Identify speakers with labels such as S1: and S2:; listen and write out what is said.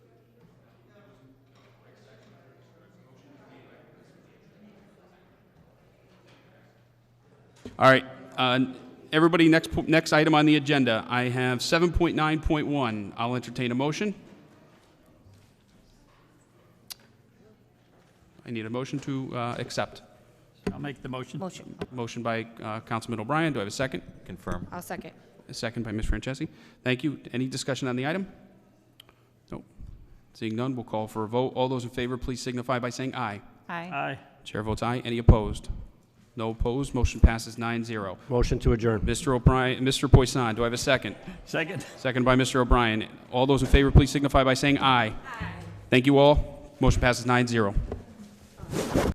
S1: All right, uh, everybody, next, po- next item on the agenda, I have 7.9.1. I'll entertain a motion. I need a motion to uh, accept.
S2: I'll make the motion.
S3: Motion.
S1: Motion by uh, Councilman O'Brien, do I have a second?
S4: Confirm.
S3: I'll second.
S1: A second by Ms. Francesi. Thank you. Any discussion on the item? Nope. Seeing none, we'll call for a vote. All those in favor, please signify by saying aye.
S3: Aye.
S2: Aye.
S1: Chair votes aye. Any opposed? No opposed. Motion passes 9-0.
S5: Motion to adjourn.
S1: Mr. O'Brien, Mr. Poisson, do I have a second?
S2: Second.
S1: Second by Mr. O'Brien. All those in favor, please signify by saying aye. Aye. Thank you all. Motion passes 9-0.